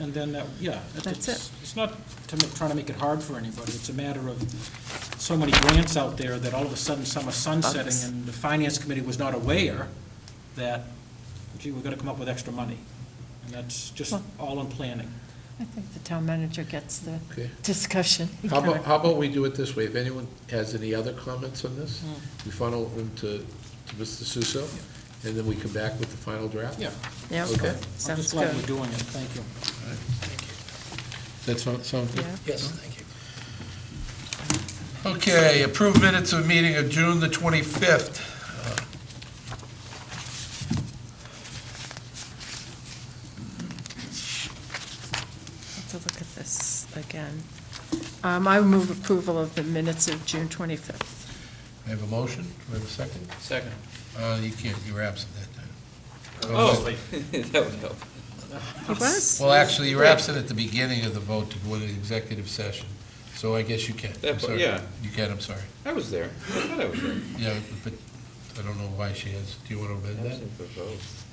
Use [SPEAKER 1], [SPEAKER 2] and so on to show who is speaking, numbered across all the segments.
[SPEAKER 1] And then, that yeah.
[SPEAKER 2] That's
[SPEAKER 1] it's- It's not to make, trying to make it hard for anybody. It's a matter of so many grants out there that all of a sudden some are sunsetting
[SPEAKER 2] Bugs.
[SPEAKER 1] and the finance committee was not aware that, gee, we're gonna come up with extra money. And that's just
[SPEAKER 2] Well-
[SPEAKER 1] all in planning.
[SPEAKER 2] I think the town manager gets the
[SPEAKER 3] Okay.
[SPEAKER 2] discussion.
[SPEAKER 3] How about, how about we do it this way? If anyone has any other comments on this,
[SPEAKER 4] Hmm.
[SPEAKER 3] we funnel them to to Mr. Suso, and then we come back with the final draft?
[SPEAKER 1] Yeah,
[SPEAKER 2] Yeah,
[SPEAKER 3] Okay.
[SPEAKER 1] I'm
[SPEAKER 2] sounds
[SPEAKER 1] just glad
[SPEAKER 2] good.
[SPEAKER 1] we're doing it. Thank you.
[SPEAKER 3] That's sound sound good?
[SPEAKER 2] Yeah.
[SPEAKER 4] Yes, thank you. Okay, approved minutes of meeting of June the 25th.
[SPEAKER 2] Let's look at this again. Um, I move approval of the minutes of June 25th.
[SPEAKER 4] I have a motion, do I have a second?
[SPEAKER 1] Second.
[SPEAKER 4] Uh, You can't, you were absent that time.
[SPEAKER 3] Oh,
[SPEAKER 5] Oh. That would help.
[SPEAKER 2] He was?
[SPEAKER 4] Well, actually, you were absent at the beginning of the vote to go into the executive session, so I guess you can.
[SPEAKER 5] That
[SPEAKER 4] I'm
[SPEAKER 5] part,
[SPEAKER 4] sorry.
[SPEAKER 5] yeah.
[SPEAKER 4] You can, I'm sorry.
[SPEAKER 5] I was there. I thought I was there.
[SPEAKER 4] Yeah, but I don't know why she is. Do you want to amend that?
[SPEAKER 5] Absent for votes.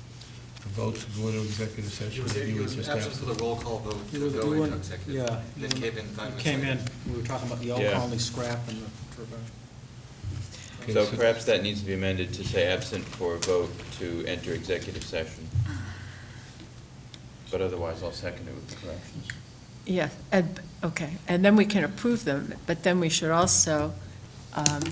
[SPEAKER 4] The vote to go into executive session?
[SPEAKER 6] He was, he
[SPEAKER 4] were
[SPEAKER 6] was
[SPEAKER 4] just
[SPEAKER 6] absent for the roll call vote
[SPEAKER 1] You
[SPEAKER 6] to
[SPEAKER 1] were
[SPEAKER 6] go
[SPEAKER 1] doing-
[SPEAKER 6] into executive.
[SPEAKER 1] yeah.
[SPEAKER 6] Then came in five
[SPEAKER 1] You
[SPEAKER 6] minutes
[SPEAKER 1] came
[SPEAKER 6] later.
[SPEAKER 1] in, we were talking about the Elk
[SPEAKER 5] Yeah.
[SPEAKER 1] Colony scrap and the turbine.
[SPEAKER 4] Okay,
[SPEAKER 5] So
[SPEAKER 4] so-
[SPEAKER 5] perhaps that needs to be amended to say absent for vote to enter executive session. But otherwise, I'll second it with the corrections.
[SPEAKER 2] Yeah, and, okay, and then we can approve them, but then we should also um,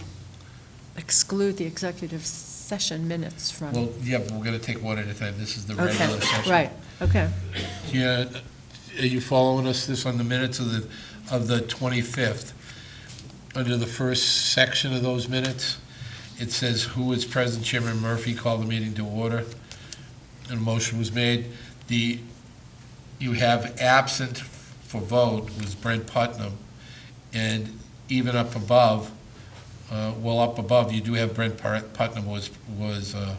[SPEAKER 2] exclude the executive session minutes from.
[SPEAKER 4] Well, yeah, but we're going to take one at a time. This is the regular
[SPEAKER 2] Okay,
[SPEAKER 4] session.
[SPEAKER 2] right, okay.
[SPEAKER 4] Yeah, are you following us this on the minutes of the, of the 25th? Under the first section of those minutes, it says, "Who is present?" Chairman Murphy called the meeting to order, and a motion was made. The, you have absent for vote was Brent Putnam, and even up above, uh, well, up above, you do have Brent Par- Putnam was, was, uh,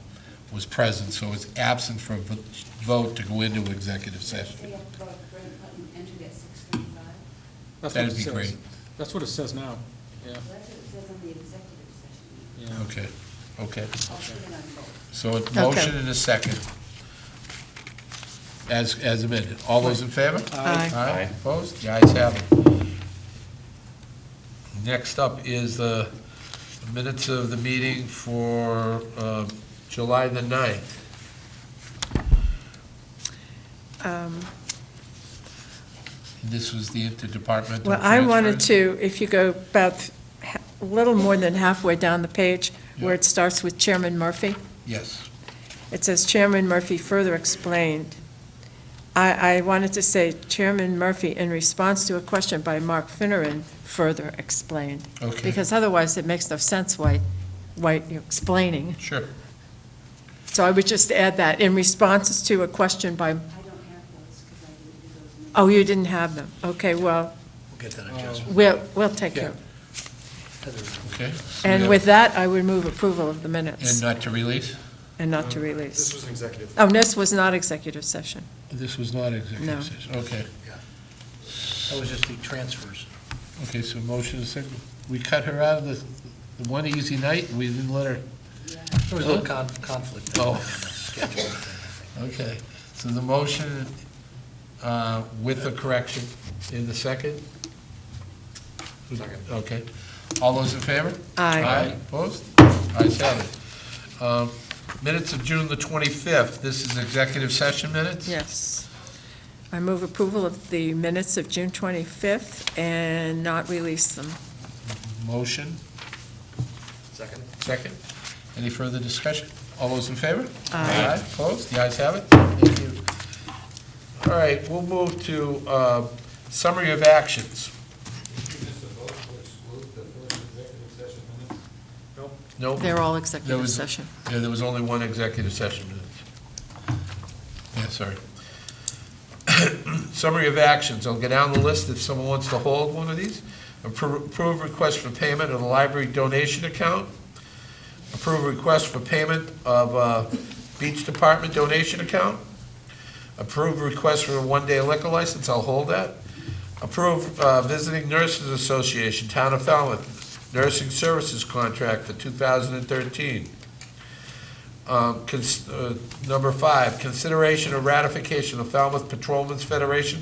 [SPEAKER 4] was present, so it's absent for vo- vote to go into executive session.
[SPEAKER 7] We have to vote Brent Putnam entered at six thirty-five.
[SPEAKER 1] That's what
[SPEAKER 4] That'd
[SPEAKER 1] it
[SPEAKER 4] be
[SPEAKER 1] says.
[SPEAKER 4] great.
[SPEAKER 1] That's what it says now, yeah,
[SPEAKER 7] That's what it says on the executive session.
[SPEAKER 1] yeah.
[SPEAKER 4] Okay, okay.
[SPEAKER 7] I'll put it on both.
[SPEAKER 4] So a motion and a second. As, as amended. All those in favor?
[SPEAKER 2] Aye.
[SPEAKER 4] Aye,
[SPEAKER 5] Aye.
[SPEAKER 4] opposed? The ayes have it. Next up is the minutes of the meeting for uh, July the 9th.
[SPEAKER 2] Um,
[SPEAKER 4] This was the interdepartmental
[SPEAKER 2] Well, I wanted
[SPEAKER 4] transfers.
[SPEAKER 2] to, if you go about ha- a little more than halfway down the page, where
[SPEAKER 4] Yeah.
[SPEAKER 2] it starts with Chairman Murphy,
[SPEAKER 4] Yes.
[SPEAKER 2] it says Chairman Murphy further explained. I, I wanted to say Chairman Murphy, in response to a question by Mark Finneran, further explained.
[SPEAKER 4] Okay.
[SPEAKER 2] Because otherwise, it makes no sense why, why you're explaining.
[SPEAKER 4] Sure.
[SPEAKER 2] So I would just add that, in responses to a question by,
[SPEAKER 7] I don't have those because I didn't do those. minutes.
[SPEAKER 2] oh, you didn't have them. Okay, well,
[SPEAKER 4] We'll get that adjustment.
[SPEAKER 2] we'll, we'll take care of it.
[SPEAKER 4] Okay. so we
[SPEAKER 2] And
[SPEAKER 4] have-
[SPEAKER 2] with that, I would move approval of the minutes.
[SPEAKER 4] And uh, not to release?
[SPEAKER 2] And
[SPEAKER 1] Uh,
[SPEAKER 2] not to
[SPEAKER 6] This
[SPEAKER 2] release.
[SPEAKER 6] was an executive.
[SPEAKER 2] Oh, this was not executive session.
[SPEAKER 4] This was not
[SPEAKER 2] No.
[SPEAKER 4] executive session. Okay.
[SPEAKER 8] That was just the transfers.
[SPEAKER 4] Okay, so motion is second. We cut her out of the, the one easy night, we didn't let her,
[SPEAKER 8] There was a little con- conflict.
[SPEAKER 4] Oh.
[SPEAKER 8] Schedule.
[SPEAKER 4] okay. So the motion uh, with the correction in the second?
[SPEAKER 6] Second.
[SPEAKER 4] Okay. All those in favor?
[SPEAKER 2] Aye.
[SPEAKER 4] Opposed? Ayes have it. Um, Minutes of June the 25th. This is executive session minutes?
[SPEAKER 2] Yes. I move approval of the minutes of June 25th and not release them.
[SPEAKER 4] Motion,
[SPEAKER 6] Second?
[SPEAKER 4] second. Any further discussion? All those in favor?
[SPEAKER 2] Aye.
[SPEAKER 4] Opposed? The ayes have it. Thank you. All right, we'll move to uh, summary of actions. Nope.
[SPEAKER 2] They're all
[SPEAKER 4] There
[SPEAKER 2] executive
[SPEAKER 4] was-
[SPEAKER 2] session.
[SPEAKER 4] Yeah, there was only one executive session minute. Yeah, sorry. Summary of actions, I'll go down the list if someone wants to hold one of these. Appro- Approve request for payment of the library donation account. Approve request for payment of uh, beach department donation account. Approve request for a one-day liquor license, I'll hold that. Approve uh, Visiting Nurses Association, Town of Falmouth, nursing services contract for 2013. uh, Um, cons- uh, Number five, consideration of ratification of Falmouth Patrolmen's Federation